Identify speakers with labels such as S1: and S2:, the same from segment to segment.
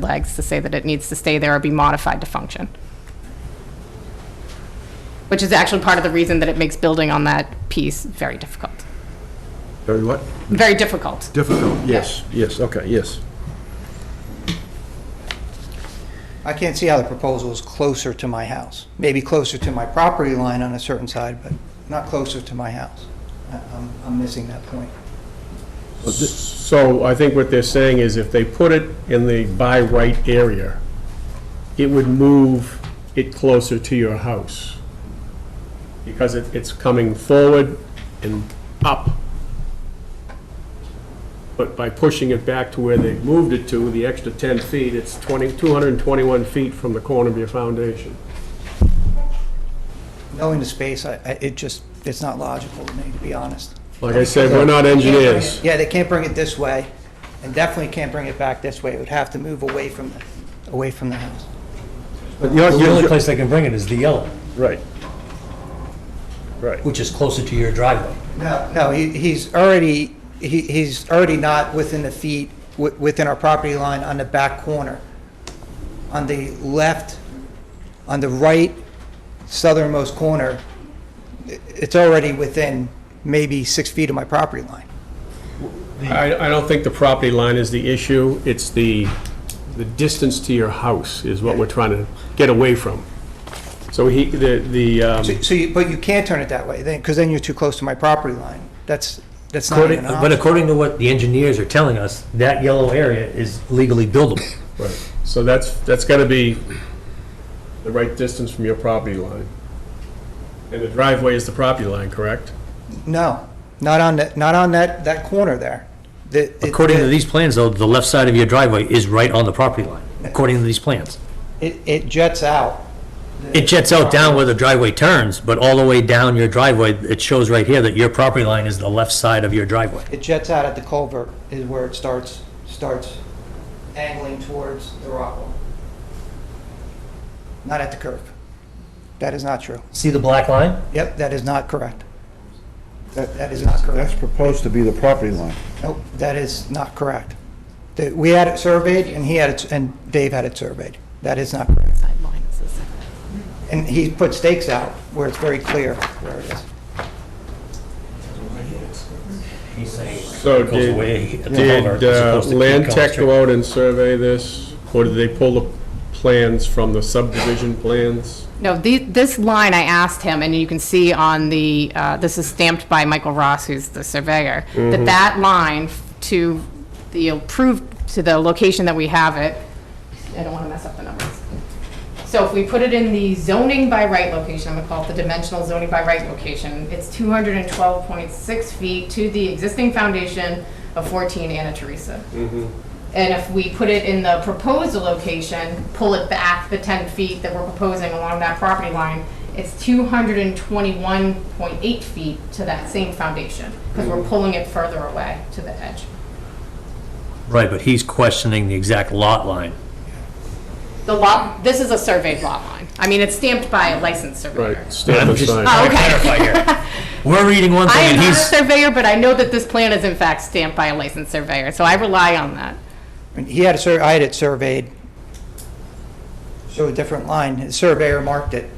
S1: legs to say that it needs to stay there or be modified to function. Which is actually part of the reason that it makes building on that piece very difficult.
S2: Very what?
S1: Very difficult.
S2: Difficult, yes, yes, okay, yes.
S3: I can't see how the proposal is closer to my house. Maybe closer to my property line on a certain side, but not closer to my house. I- I'm, I'm missing that point.
S4: So I think what they're saying is if they put it in the by right area, it would move it closer to your house. Because it, it's coming forward and up. But by pushing it back to where they moved it to, the extra 10 feet, it's 20, 221 feet from the corner of your foundation.
S3: Knowing the space, I, I- it just, it's not logical to me, to be honest.
S4: Like I said, we're not engineers.
S3: Yeah, they can't bring it this way, and definitely can't bring it back this way. It would have to move away from, the away from the house.
S2: But you're-
S5: The only
S2: you're-
S5: place they can bring it is the yellow,
S2: Right. Right.
S5: which is closer to your driveway.
S3: No, no, he, he's already, he, he's already not within the feet, wi- within our property line on the back corner. On the left, on the right southernmost corner, i- it's already within maybe six feet of my property line.
S4: I, I don't think the property line is the issue, it's the, the distance to your house is what we're trying to get away from. So he, the, the, um,
S3: So- So you, but you can't turn it that way then, because then you're too close to my property line. That's, that's not
S5: According,
S3: even an
S5: but
S3: option.
S5: according to what the engineers are telling us, that yellow area is legally buildable.
S4: right, so that's, that's gotta be the right distance from your property line. And the driveway is the property line, correct?
S3: No, not on that, not on that, that corner there. The- it-
S5: According to
S3: the-
S5: these plans, though, the left side of your driveway is right on the property line, according to these plans.
S3: It, it jets out.
S5: It jets out down where the driveway turns, but all the way down your driveway, it shows right here that your property line is the left side of your driveway.
S3: It jets out at the culvert is where it starts, starts angling towards the rock wall. Not at the curve. That is not true.
S5: See the black line?
S3: Yep, that is not correct. That, that is not correct.
S6: That's proposed to be the property line.
S3: Nope, that is not correct. The- We had it surveyed and he had it, and Dave had it surveyed. That is not correct.
S1: Sideline is the same.
S3: And he put stakes out where it's very clear where it is.
S5: He's saying.
S4: So
S5: Goes away
S4: did,
S5: at the culvert,
S4: did
S5: as
S4: uh,
S5: opposed to keep
S4: Land
S5: going
S4: Tech
S5: straight.
S4: go out and survey this, or did they pull the plans from the subdivision plans?
S1: No, the, this line I asked him, and you can see on the, uh, this is stamped by Michael Ross, who's the surveyor, that that line f- to the approved, to the location that we have it, I don't want to mess up the numbers. So if we put it in the zoning by right location, I'm going to call it the dimensional zoning by right location, it's 212.6 feet to the existing foundation of 14 Anna Teresa. And if we put it in the proposal location, pull it back the 10 feet that we're proposing along that property line, it's 221.8 feet to that same foundation, because we're pulling it further away to the edge.
S5: Right, but he's questioning the exact lot line.
S1: The lot, this is a surveyed lot line. I mean, it's stamped by a licensed surveyor.
S4: Right, stand
S5: I'm just-
S4: aside.
S1: Oh, okay.
S5: Clarify here. We're reading one
S1: I
S5: thing
S1: am
S5: and
S1: not a
S5: he's,
S1: surveyor, but I know that this plan is in fact stamped by a licensed surveyor, so I rely on that.
S3: And He had a sur, I had it surveyed, showed a different line. The surveyor marked it.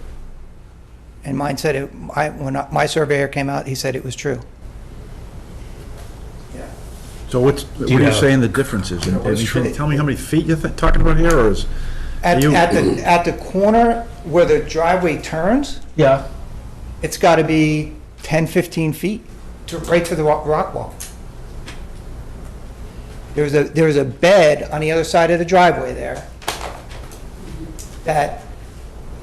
S3: And mine said it, I, when I- my surveyor came out, he said it was true.
S2: So what's, what
S5: you
S2: are you
S5: have-
S2: saying the difference is? I mean, can you Tell me how many feet you're thi- talking about here, or is?
S3: At,
S2: You-
S3: at the, at the corner where the driveway turns,
S2: Yeah.
S3: it's got to be 10, 15 feet, to, right to the rock, rock wall. There's a, there's a bed on the other side of the driveway there that,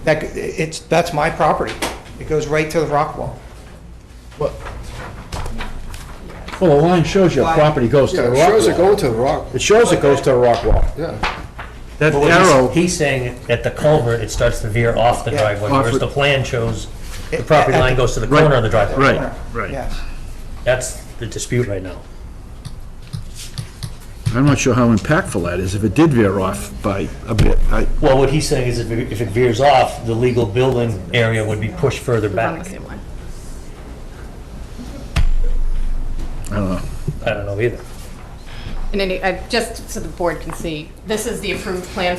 S3: that, c- it's, that's my property. It goes right to the rock wall.
S2: Well, the line shows your
S3: Why?
S2: property goes to the
S7: Yeah,
S2: rock
S7: it shows it
S2: wall.
S7: going to the rock.
S2: It shows it goes to the rock wall.
S7: Yeah,
S2: That
S5: Well, he's-
S2: arrow,
S5: He's saying at the culvert, it starts to veer off the
S3: Yeah.
S5: driveway,
S2: Off
S5: whereas
S2: it.
S5: the plan shows the
S3: It-
S5: property
S3: at
S5: line
S3: the-
S5: goes to the
S2: Right.
S5: corner of the driveway.
S2: right, right.
S3: Yes.
S5: That's the dispute right now.
S2: I'm not sure how impactful that is, if it did veer off by a bit. I-
S5: Well, what he's saying is if it if it veers off, the legal building area would be pushed further
S1: It's on the
S5: back.
S1: same line.
S2: I don't know.
S5: I don't know either.
S1: in any, I- just so the board can see, this is the approved plan